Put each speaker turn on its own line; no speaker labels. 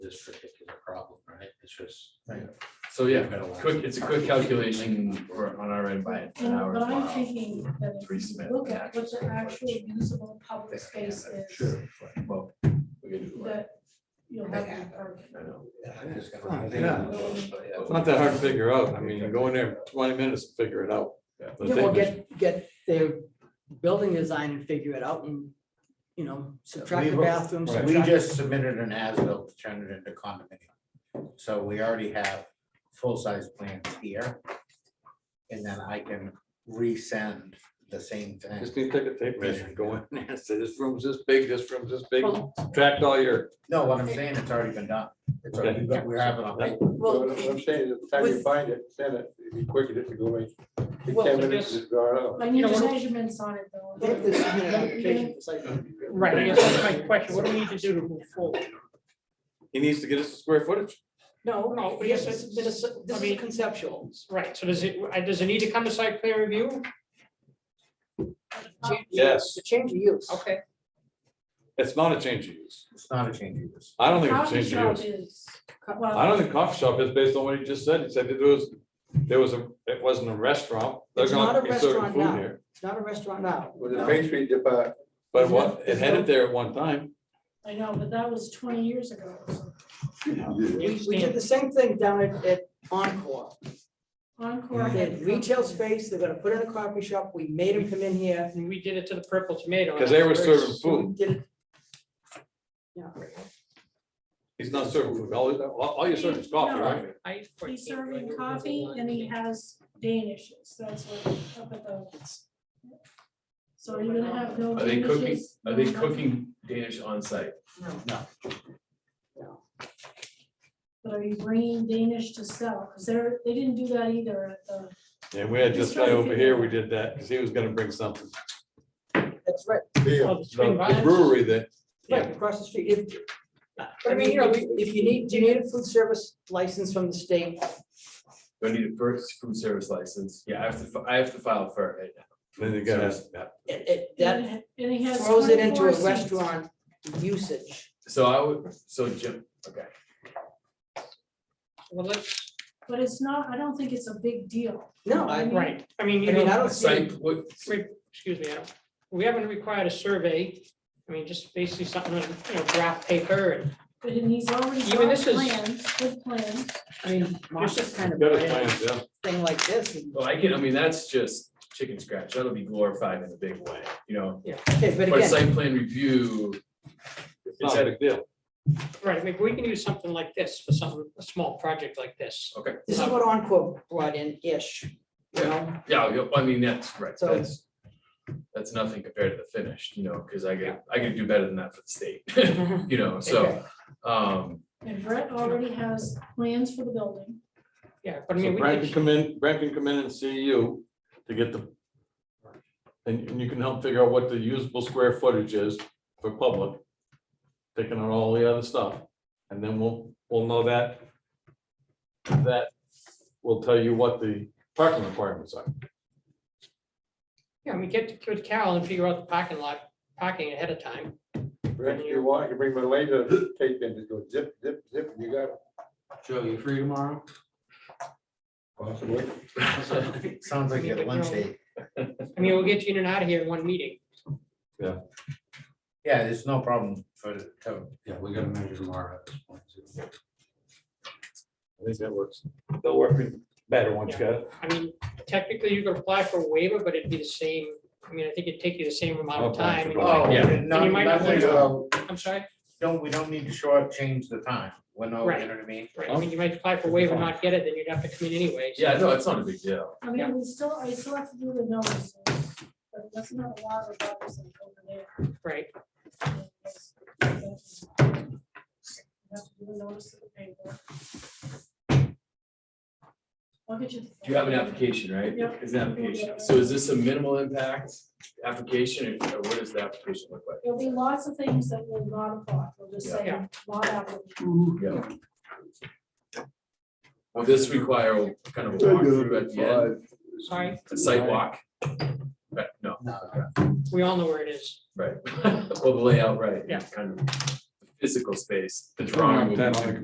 this particular problem, right? It's just.
Right.
So yeah,
We've got a lot.
quick, it's a quick calculation for on our end by an
No,
hour.
But I'm
tomorrow.
thinking that
Three
if you
cement
look at what
patches
the
and
actual
such.
municipal public space
Yeah,
is,
Sure. Well, we can do it.
that you'll have to park.
I know.
Yeah.
Um,
It's not that hard to figure out. I mean, you go in there twenty minutes, to figure it out.
Yeah.
The
Yeah, well,
thing is,
get, get their building design and figure it out and, you know, subtract the
We've-
bathrooms.
right.
We
subtract-
just submitted an as-built to turn it into condominium. So we already have full-size plans here. And then I can resend the same thing.
Just need to take a tape measure and go in there and say, this room's this big, this room's this big, subtract all your.
No, what I'm saying, it's already been done. It's already, but we're having a paper.
Well,
I'm saying is, by the time you
with-
find it, send it, it'd be quicker just to go in. In
Well, I
ten minutes, it's gone out.
I
You
need
know, what-
measurements on it though.
what if they submit an application for site plan?
Right, I guess that's my question, what do we need to do to move forward?
He needs to get us a square footage.
No,
No,
no, yes, it's, been a-
I
this is
mean-
conceptual.
Right, so does it, I- does it need to come to site plan review?
Change-
Yes.
To change the use.
Okay.
It's not a change of use.
It's not a change of use.
I don't think it's a
Coffee
change of
shop
use.
is,
I
well,
don't think coffee shop is based on what he just said. He said that there was, there was a, it wasn't a restaurant. They're
It's
gonna
not a
be serving
restaurant
food
now.
here.
It's not a restaurant now.
With the pastry depart,
But
It's
what,
not-
it had it there at one time.
I know, but that was twenty years ago. so.
We, we did the same thing down at, at Encore.
Encore.
Mm-hmm.
They had
had-
retail space, they're gonna put in a coffee shop, we made them come in here.
We did it to the Purple Tomato.
'Cause they were
That's very-
serving food.
Did it. Yeah.
He's not serving food. All, all all you're serving is coffee, right?
I-
He's serving coffee and he has Danishes, that's what, up at the. So you're gonna have no.
Are they cooking-
Danishes,
Are they
no nothing.
cooking Danish on site?
But are you bringing Danish to sell? Because they're, they didn't do that either at the,
And we had
He's
this
trying
guy
to
over
figure
here,
out.
we did that, because he was gonna bring something.
That's right,
beer,
Oh, the
The
swing
the
vibes?
brewery that,
right, across the street. If,
I
I
mean,
mean,
you
you
know,
if you need, do you need a food service license from the state?
Do I need a first food service license? Yeah, I have to, fi- I have to file for it.
then you got us,
It, it,
and
that
it- and he has.
throws it into
24
a
seats.
restaurant usage.
So I would, so Jim, okay.
Well, let's,
But it's not, I don't think it's a big deal.
No, I, I
right, I mean, you
mean, I
know,
don't see,
Site, what,
we- excuse me, I don't- we haven't required a survey. I mean, just basically something, on, you know, draft paper and,
But then he's already
Even
got
this is-
plans, good plans.
I mean, Martha's kind of
got us
a
plans, yeah.
thing like this. and-
well, I can, I mean, that's just chicken scratch. That'll be glorified in a big way, you know?
Okay, but
But
again,
site plan review.
It's
It's
not a
at,
big deal.
right, maybe we can use something like this for some, a small project like this. Um,
okay,
this is what Encore brought in-ish, you know?
yeah, you- I mean, that's right,
So-
that's. That's nothing compared to the finished, you know, because I could, I could do better than that for the state, you know, so, um.
And Brett already has plans for the building.
Yeah, but I
So
mean, we
Brad can
can,
come in, Brad can come in and see you to get the. And, and you can help figure out what the usable square footage is for public. Taking out all the other stuff, and then we'll, we'll know that. That will tell you what the parking requirements are.
yeah, we get with Carol and figure out the parking lot, parking ahead of time.
if you want, I can bring my laser tape in, just go zip, zip, zip, you got it.
Joe, you free tomorrow?
Possibly.
Sounds like you had lunch date.
I mean, we'll get you in and out of here in one meeting.
Yeah, there's no problem for, the- to
Yeah, we gotta measure tomorrow at this point. too.
I think that works. They'll work better once you got it.
I mean, technically, you could apply for a waiver, but it'd be the same, I mean, I think it'd take you the same amount of
Okay,
time. and
so-
like-
Oh,
Yeah.
no,
And you might not
nothing
think so.
about,
I'm sorry,
don't, we don't need to shortchange the time, we're no, you
Right.
know what I mean?
right, I mean, you might apply for a waiver, not get it, then you'd have to come in anyway. so-
Yeah, no, it's not a big deal.
I mean, we still, I still have to do the notices, but that's not a lot of dollars like over there.
Right,
You have to do the notice of the paper. I'll get you. the-
You have an application, right?
Yep.
It's an application. So is this a minimal impact application or or what does the application look like?
There'll be lots of things that will not apply, we'll just say,
Yeah.
not applicable.
Yeah. Will this require a kind of a walkthrough at the end,
sorry,
a site walk? Right, no,
we all know where it is.
right. Well, the layout, right.
Yeah.
Kind of physical space, the drawing will be.